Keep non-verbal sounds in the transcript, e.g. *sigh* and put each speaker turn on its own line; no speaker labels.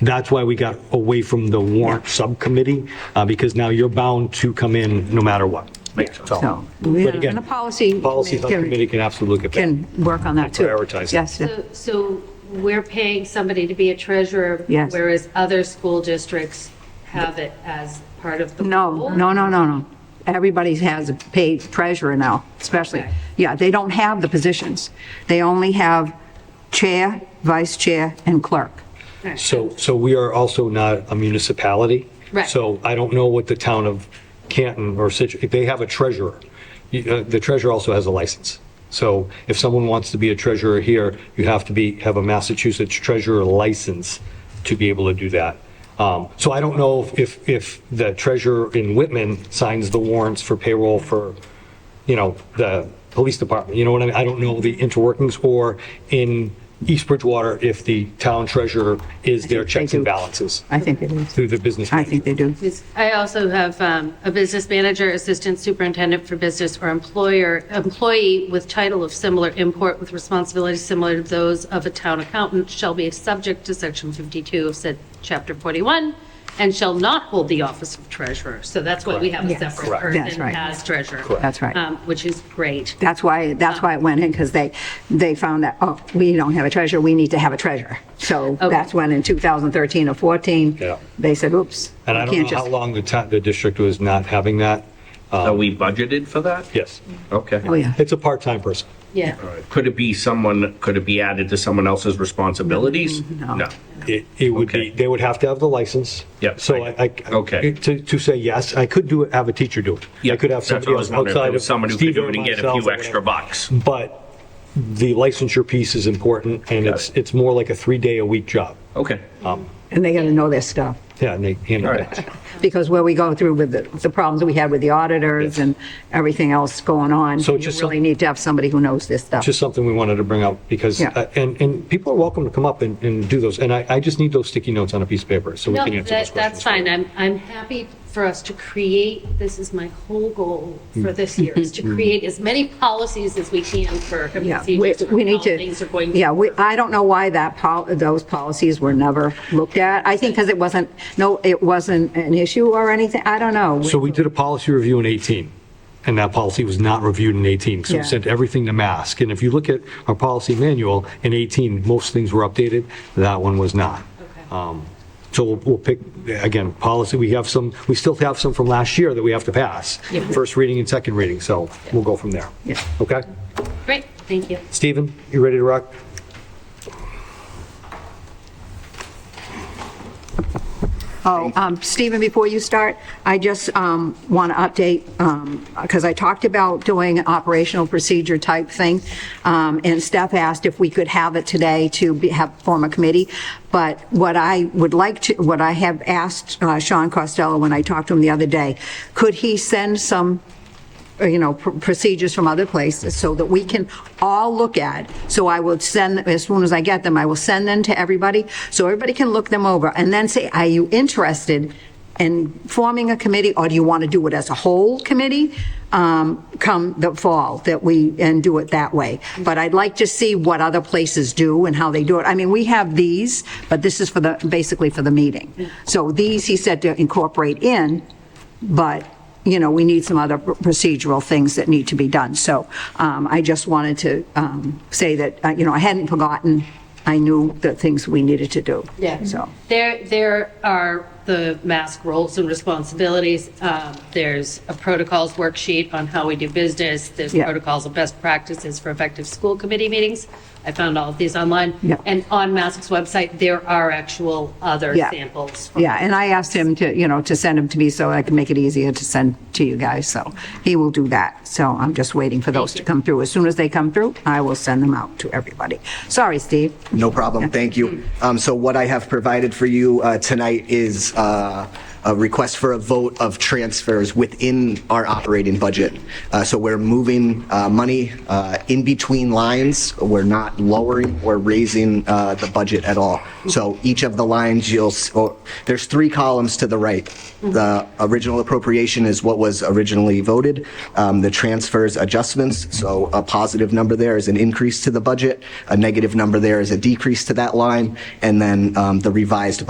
That's why we got away from the warrant subcommittee, uh, because now you're bound to come in no matter what.
So,
But again,
and the policy.
Policy
committee
subcommittee can absolutely look at that.
Can work on that too.
Prioritize it.
Yes, yeah.
So- So we're paying somebody to be a treasurer?
Yes.
Whereas other school districts have it as part of the.
no,
role?
no, no, no, no. Everybody has a paid treasurer now, especially.
Okay.
Yeah, they don't have the positions. They only have chair, vice chair, and clerk.
So, so we are also not a municipality.
Right.
So I don't know what the town of Canton or Situ, if they have a treasurer. You- uh, The treasurer also has a license. So if someone wants to be a treasurer here, you have to be, have a Massachusetts treasurer license to be able to do that. Um, So I don't know if- if, if the treasurer in Whitman signs the warrants for payroll for, you know, the police department, you know what I mean? I don't know the interworkings, or in East Bridgewater, if the town treasurer is their checks and
do.
balances
I think it is.
through the business.
I think they do.
Because I also have um, a business manager, assistant superintendent for business, or employer, employee with title of similar import with responsibilities similar to those of a town accountant shall be subject to section 52 of said chapter 41 and shall not hold the office of treasurer. So that's why we have a
Yes.
separate
Correct.
That's
person
right.
as treasurer.
That's right.
um, Which is great.
That's why, that's why it went in, because they, they found that, oh, we don't have a treasurer, we need to have a treasurer. So that's when in 2013 or 14,
Yeah.
they said, oops.
And I
we
don't
can't
know how
just-
long the town, the district was not having that.
Are we budgeted for that?
Yes.
Okay.
Oh, yeah.
It's a part-time person.
Yeah.
Could it be someone, could it be added to someone else's responsibilities?
Mm, No.
It, it would be,
Okay.
they would have to have the license.
Yep.
So I, I.
Okay.
To, to say yes, I could do it, have a teacher do it. I could have
That's what
somebody
I was
else
wondering, if there
outside of
was Someone who could
Steve
do
or
it and get a
myself or
few
whatever.
extra bucks.
But the licensure piece is important and it's, it's more like a three-day-a-week job.
Okay.
And they got to know their stuff.
Yeah, and they handle
All
that.
right.
because where we go through with the, the problems we had with the auditors and everything else going on,
So
you
just
really
some-
need to have somebody who knows this stuff.
Just something we wanted to bring up because,
Yeah.
uh, and, and people are welcome to come up and, and do those. And I, I just need those sticky notes on a piece of paper so we
No,
can answer those
that, that's
questions.
fine. I'm, I'm happy for us to create, this is my whole goal
Mm.
for this year, is
*laughs*
to create as many policies as we can for
Yeah, we,
procedures
we
for how
need to.
things are going.
Yeah, we, I don't know why that, pol- those policies were never looked at. I think because it wasn't, no, it wasn't an issue or anything, I don't know.
So we did a policy review in 18, and that policy was not reviewed in 18, so
Yeah.
we sent everything to mask. And if you look at our policy manual, in 18, most things were updated, that one was not. Um, So we'll- we'll pick, again, policy, we have some, we still have some from last year that we have to pass, first reading and second reading, so we'll go from there.
Yeah.
Okay?
Great, thank you.
Stephen, you ready to rock?
Oh, um, Stephen, before you start, I just want to update, because I talked about doing an operational procedure type thing, um, and Steph asked if we could have it today to be- have, form a committee, but what I would like to, what I have asked uh, Sean Costello when I talked to him the other day, could he send some or, uh, you know, pr- procedures from other places so that we can all look at. So I will send, as soon as I get them, I will send them to everybody so everybody can look them over and then say, are you interested in forming a committee or do you want to do it as a whole committee um, come the fall that we, and do it that way? But I'd like to see what other places do and how they do it. I mean, we have these, but this is for the, basically for the meeting. So these, he said to incorporate in, but, you know, we need some other procedural things that need to be done. So um, I just wanted to um, say that, uh, you know, I hadn't forgotten, I knew the things we needed to do.
Yeah.
So,
There, there are the mask roles and responsibilities. Um, There's a protocols worksheet on how we do business. There's
Yeah.
protocols and best practices for effective school committee meetings. I found all of these online.
Yeah.
And on Mask's website, there are actual other
Yeah.
samples. from
yeah, and I asked him to, you know, to send them to me so I can make it easier to send to you guys. So he will do that. So I'm just waiting for those to come through. As soon as they come through, I will send them out to everybody. Sorry, Steve.
No problem, thank you. Um, So what I have provided for you uh, tonight is uh, a request for a vote of transfers within our operating budget. Uh, So we're moving uh, money uh, in between lines, we're not lowering or raising uh, the budget at all. So each of the lines, you'll, s- oh, there's three columns to the right. The original appropriation is what was originally voted, Um, the transfers adjustments, so a positive number there is an increase to the budget, a negative number there is a decrease to that line, and then um, the revised